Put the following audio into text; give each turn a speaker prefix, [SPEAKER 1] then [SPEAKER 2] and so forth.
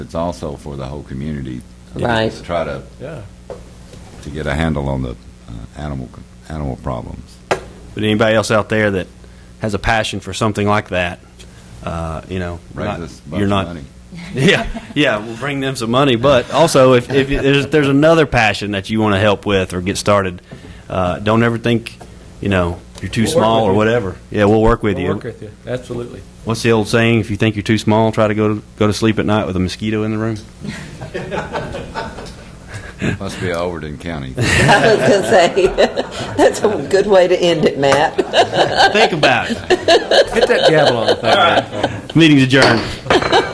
[SPEAKER 1] It's also for the whole community.
[SPEAKER 2] Right.
[SPEAKER 1] To try to,
[SPEAKER 3] Yeah.
[SPEAKER 1] to get a handle on the uh, animal, animal problems.
[SPEAKER 4] But anybody else out there that has a passion for something like that, uh, you know,
[SPEAKER 1] Raise
[SPEAKER 4] not-
[SPEAKER 1] us a bunch
[SPEAKER 4] you're
[SPEAKER 1] of
[SPEAKER 4] not.
[SPEAKER 1] money.
[SPEAKER 4] Yeah, yeah, we'll bring them some money. But also, if, if there's, there's another passion that you want to help with or get started, uh, don't ever think, you know, you're too
[SPEAKER 3] We'll work
[SPEAKER 4] small
[SPEAKER 3] with
[SPEAKER 4] or
[SPEAKER 3] you.
[SPEAKER 4] whatever. Yeah, we'll work with
[SPEAKER 3] We'll
[SPEAKER 4] you.
[SPEAKER 3] work with you, absolutely.
[SPEAKER 4] What's the old saying? If you think you're too small, try to go to, go to sleep at night with a mosquito in the room.
[SPEAKER 1] Must be Overton County.
[SPEAKER 2] I was going to say, that's a good way to end it, Matt.
[SPEAKER 4] think about it.
[SPEAKER 3] Hit that gavel on the thing.
[SPEAKER 4] Meeting's adjourned.